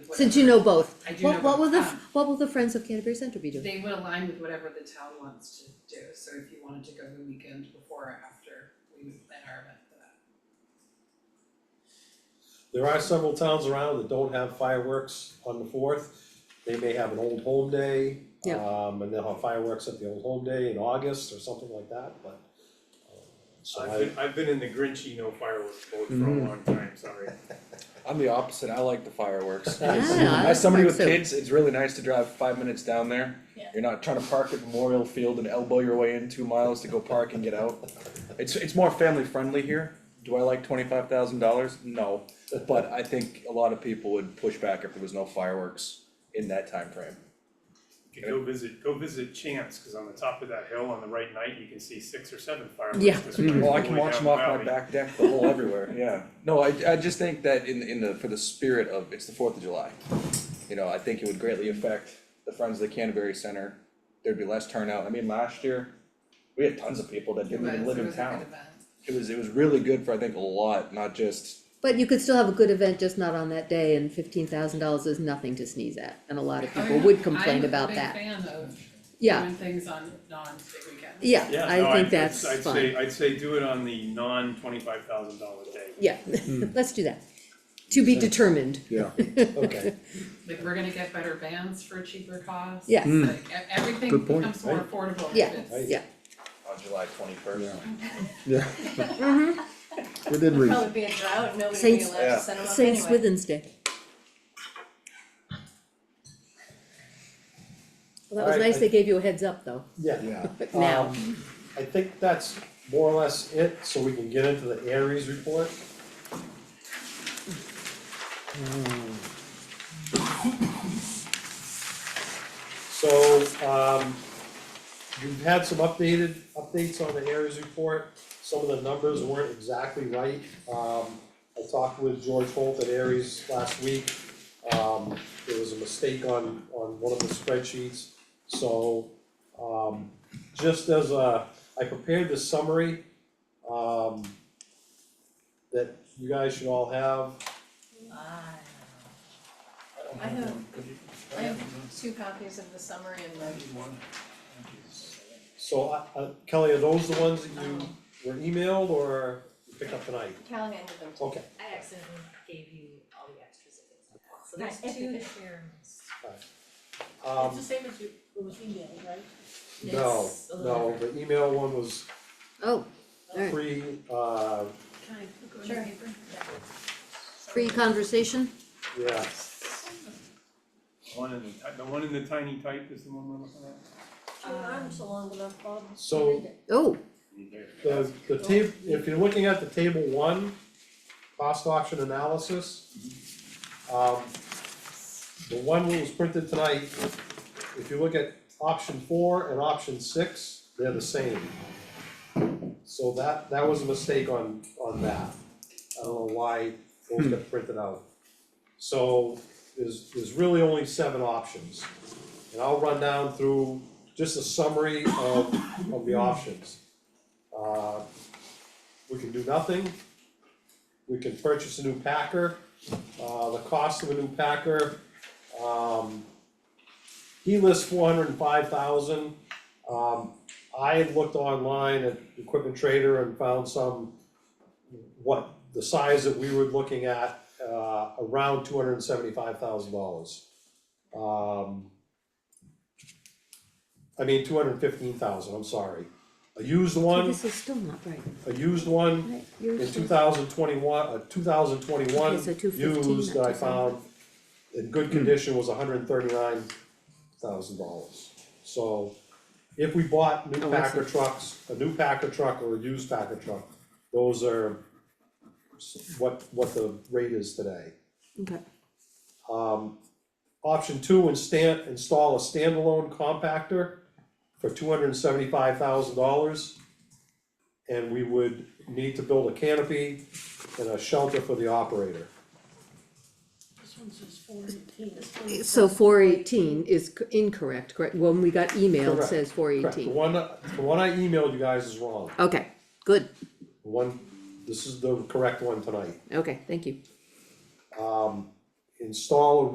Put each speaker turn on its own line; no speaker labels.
Since you know
whatever-
both.
I do know
What, what will
both.
the,
Um,
what will the Friends of Canterbury Center be doing?
They would align with whatever the town wants to do, so if you wanted to go the weekend before or after, we would plan our event for that.
There are several towns around that don't have fireworks on the fourth. They may have an old home day.
Yep.
Um, and they'll have fireworks at the old home day in August or something like that, but. um, So
I've
I,
been, I've been in the Grinchy no fireworks boat for a
Mhm.
long time, sorry.
I'm the opposite. I like the fireworks.
Yeah, I
like
As somebody with
fireworks too.
kids, it's really nice to drive five minutes down there.
Yeah.
You're not trying to park at Memorial Field and elbow your way in two miles to go park and get out. It's, it's more family friendly here. Do I like twenty-five thousand dollars? No, but I think a lot of people would push back if there was no fireworks in that time frame.
You could go visit, go visit Chance, cause on the top of that hill on the right night, you can see six or seven fireworks.
Yeah.
displays
Well, I
all the
can
way
watch
down
them off
the
my
valley.
back deck, the whole everywhere, yeah. No, I, I just think that in, in the, for the spirit of, it's the Fourth of July. You know, I think it would greatly affect the Friends of the Canterbury Center, there'd be less turnout, I mean, last year, we had tons of people that didn't even
But
live
it
in
was a good
town.
event.
It was, it was really good for, I think, a lot, not just,
But you could still have a good event, just not on that day, and fifteen thousand dollars is nothing to sneeze at, and a lot of people would complain about that.
I'm a big fan of
Yeah,
doing things on non-big weekends.
yeah,
Yeah, no,
I
I'd-
think that's
I'd
fine.
say, I'd say do it on the non twenty-five thousand dollar day.
Yeah,
Hmm.
let's do that. To be determined,
yeah,
okay,
Like, we're gonna get better vans for a cheaper cost.
Yes. Mm.
Like, e- everything
Good point,
becomes more
right?
affordable if
Yeah.
it's-
Right.
yeah,
on July twenty-first.
Yeah. Within reason.
Probably be a drought, nobody would be
Saints-
allowed
Yeah.
to send them up anyway.
Saint Swithin's Day. Well, that was
Alright,
nice
I-
they gave you a heads up though,
yeah.
Yeah.
but now,
Um, I think that's more or less it, so we can get into the Aries report. So, um, we've had some updated, updates on the Aries report, some of the numbers weren't exactly right. Um, I talked with George Holt at Aries last week, um, there was a mistake on, on one of the spreadsheets. So, um, just as a, I prepared this summary, um, that you guys should all have.
Ah. I have, I have two copies of the summary and the,
So, uh, uh, Kelly, are those the ones that you
um,
were emailed or you picked up tonight?
Callahan with them too.
Okay,
I accidentally gave you all the extras if it's not, so there's two terms.
um,
the same as you, it was emailed, right?
no,
It's a little
no, the email one was
oh, alright,
pre, uh,
Can I go to
Sure.
paper?
free conversation,
yeah,
One in the, ti- the one in the tiny type is the one we're looking at?
Your
Um,
arms are long enough, Bob.
so.
oh,
The, the table, if you're looking at the table one, cost option analysis, um, the one that was printed tonight, if you look at option four and option six, they're the same. So that, that was a mistake on, on that. I don't know why those got printed out. So there's, there's really only seven options. And I'll run down through just a summary of, of the options. Uh, We can do nothing. We can purchase a new Packer. Uh, the cost of a new Packer, um, he lists four hundred and five thousand. Um, I had looked online at Equipment Trader and found some, what, the size that we were looking at, uh, around two hundred and seventy-five thousand dollars. Um, I mean, two hundred and fifteen thousand, I'm sorry. A used
Um,
so
one,
this is still not right,
a used one
right, yours
in
is-
two thousand twenty-one, uh, two thousand twenty-one
Okay, so 215,
used that I
not 275.
found in good condition was hundred and thirty-nine thousand dollars. So if we bought new
Oh, I see.
Packer trucks, a new Packer truck or a used Packer truck, those are s- what, what the rate is today.
okay.
Um, option two, instant, install a standalone compactor for two hundred and seventy-five thousand dollars. And we would need to build a canopy and a shelter for the operator.
This one says four eighteen, this one
So four eighteen is c- incorrect, correct, when we got emailed, it
Correct,
says four
Correct, the
eighteen,
one, the one I emailed you guys is wrong,
okay, good,
The one, this is the correct one tonight.
okay, thank you.
Um, install a